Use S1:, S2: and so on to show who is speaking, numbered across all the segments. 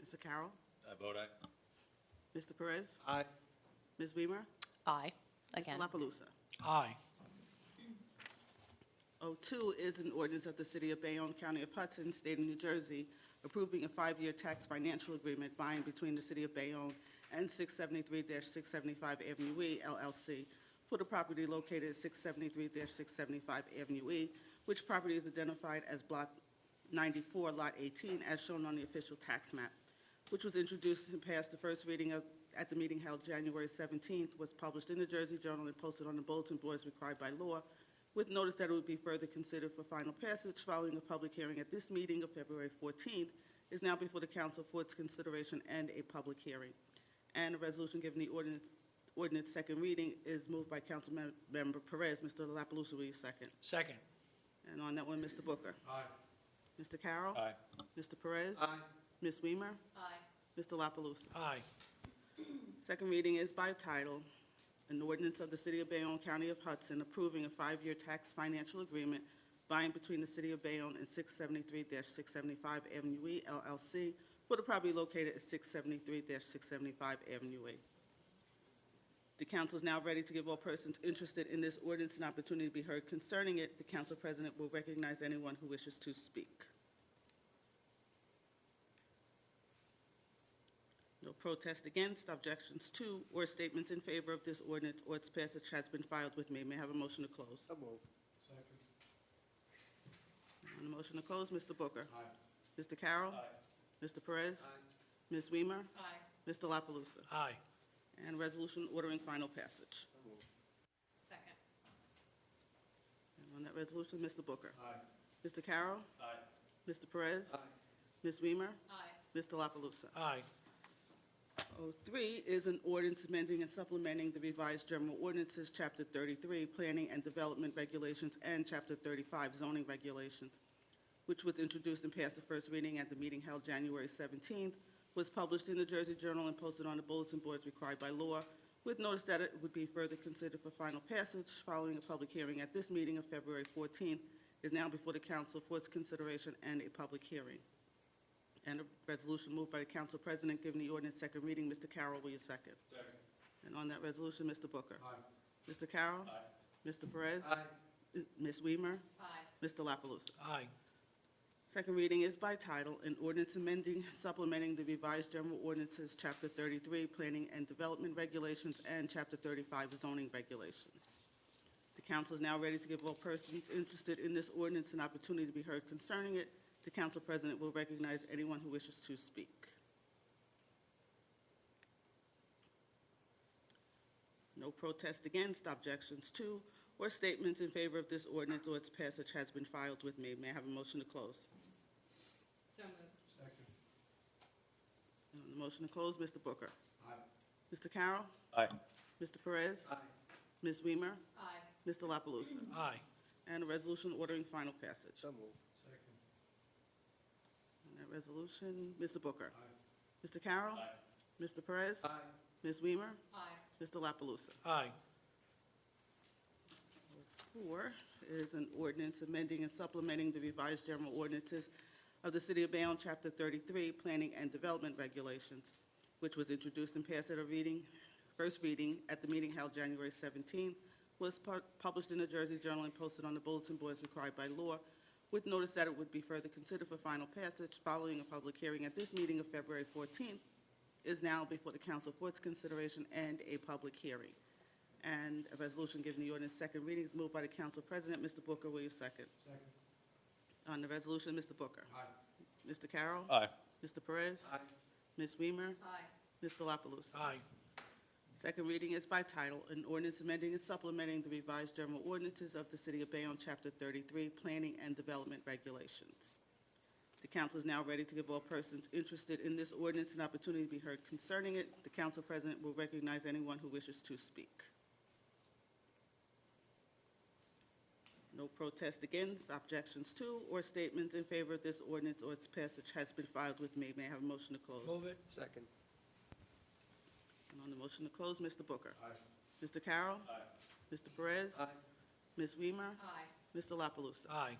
S1: Mr. Carroll?
S2: I vote aye.
S1: Mr. Perez?
S3: Aye.
S1: Ms. Weimer?
S4: Aye, again.
S1: Mr. La Palusa?
S3: Aye.
S1: O2 is an ordinance of the City of Bayonne, County of Hudson, State of New Jersey, approving a five-year tax financial agreement by and between the City of Bayonne and 673-675 Avenue E LLC for the property located at 673-675 Avenue E, which property is identified as Block 94, Lot 18, as shown on the official tax map, which was introduced and passed the first reading of, at the meeting held January 17th, was published in the Jersey Journal and posted on the bulletin board as required by law, with notice that it would be further considered for final passage following a public hearing at this meeting of February 14th, is now before the council for its consideration and a public hearing. And a resolution giving the ordinance, ordinance second reading is moved by Councilmember Perez. Mr. La Palusa, will you second?
S3: Second.
S1: And on that one, Mr. Booker.
S3: Aye.
S1: Mr. Carroll.
S2: Aye.
S1: Mr. Perez.
S3: Aye.
S1: Ms. Weimer.
S4: Aye.
S1: Mr. La Palusa.
S3: Aye.
S1: Second reading is by title, an ordinance of the City of Bayonne, County of Hudson, approving a five-year tax financial agreement by and between the City of Bayonne and 673-675 Avenue E LLC for the property located at 673-675 Avenue E. The council is now ready to give all persons interested in this ordinance an opportunity to be heard concerning it. The council president will recognize anyone who wishes to speak. No protest against, objections to, or statements in favor of this ordinance or its passage has been filed with me. May I have a motion to close?
S3: So moved. Second.
S1: On the motion to close, Mr. Booker.
S3: Aye.
S1: Mr. Carroll. Mr. Perez. Ms. Weimer.
S4: Aye.
S1: Mr. La Palusa.
S3: Aye.
S1: And resolution ordering final passage.
S4: Second.
S1: And on that resolution, Mr. Booker.
S3: Aye.
S1: Mr. Carroll.
S2: Aye.
S1: Mr. Perez. Ms. Weimer.
S4: Aye.
S1: Mr. La Palusa.
S3: Aye.
S1: 03 is an ordinance amending and supplementing the revised general ordinances, Chapter 33, Planning and Development Regulations, and Chapter 35, Zoning Regulations, which was introduced and passed the first reading at the meeting held January 17th, was published in the Jersey Journal and posted on the bulletin boards required by law, with notice that it would be further considered for final passage following a public hearing at this meeting of February 14th, is now before the council for its consideration and a public hearing. And a resolution moved by the council president giving the ordinance second reading. Mr. Carroll, will you second?
S2: Second.
S1: And on that resolution, Mr. Booker. Aye. Mr. Carroll. Aye. Mr. Perez.
S3: Aye.
S1: Ms. Weimer.
S4: Aye.
S1: Mr. La Palusa.
S3: Aye.
S1: Second reading is by title, an ordinance amending, supplementing the revised general ordinances, Chapter 33, Planning and Development Regulations, and Chapter 35, Zoning Regulations. The council is now ready to give all persons interested in this ordinance an opportunity to be heard concerning it. The council president will recognize anyone who wishes to speak. No protest against, objections to, or statements in favor of this ordinance or its passage has been filed with me. May I have a motion to close?
S4: So moved.
S3: Second.
S1: On the motion to close, Mr. Booker.
S3: Aye.
S1: Mr. Carroll.
S2: Aye.
S1: Mr. Perez.
S3: Aye.
S1: Ms. Weimer.
S4: Aye.
S1: Mr. La Palusa.
S3: Aye.
S1: And a resolution ordering final passage.
S3: So moved. Second.
S1: On that resolution, Mr. Booker.
S3: Aye.
S1: Mr. Carroll. Mr. Perez. Ms. Weimer.
S4: Aye.
S1: Mr. La Palusa.
S3: Aye.
S1: Four is an ordinance amending and supplementing the revised general ordinances of the City of Bayonne, Chapter 33, Planning and Development Regulations, which was introduced and passed at a reading, first reading at the meeting held January 17th, was pu- published in the Jersey Journal and posted on the bulletin boards required by law, with notice that it would be further considered for final passage following a public hearing at this meeting of February 14th, is now before the council for its consideration and a public hearing. And a resolution giving the ordinance second reading is moved by the council president. Mr. Booker, will you second?
S3: Second.
S1: On the resolution, Mr. Booker.
S3: Aye.
S1: Mr. Carroll.
S2: Aye.
S1: Mr. Perez.
S3: Aye.
S1: Ms. Weimer.
S4: Aye.
S1: Mr. La Palusa.
S3: Aye.
S1: Second reading is by title, an ordinance amending and supplementing the revised general ordinances of the City of Bayonne, Chapter 33, Planning and Development Regulations. The council is now ready to give all persons interested in this ordinance an opportunity to be heard concerning it. The council president will recognize anyone who wishes to speak. No protest against, objections to, or statements in favor of this ordinance or its passage has been filed with me. May I have a motion to close?
S3: Move it. Second.
S1: And on the motion to close, Mr. Booker.
S3: Aye.
S1: Mr. Carroll.
S2: Aye.
S1: Mr. Perez.
S3: Aye.
S1: Ms. Weimer.
S4: Aye.
S1: Mr. La Palusa.
S3: Aye.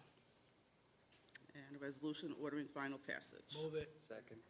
S1: And a resolution ordering final passage.
S3: Move it. Second.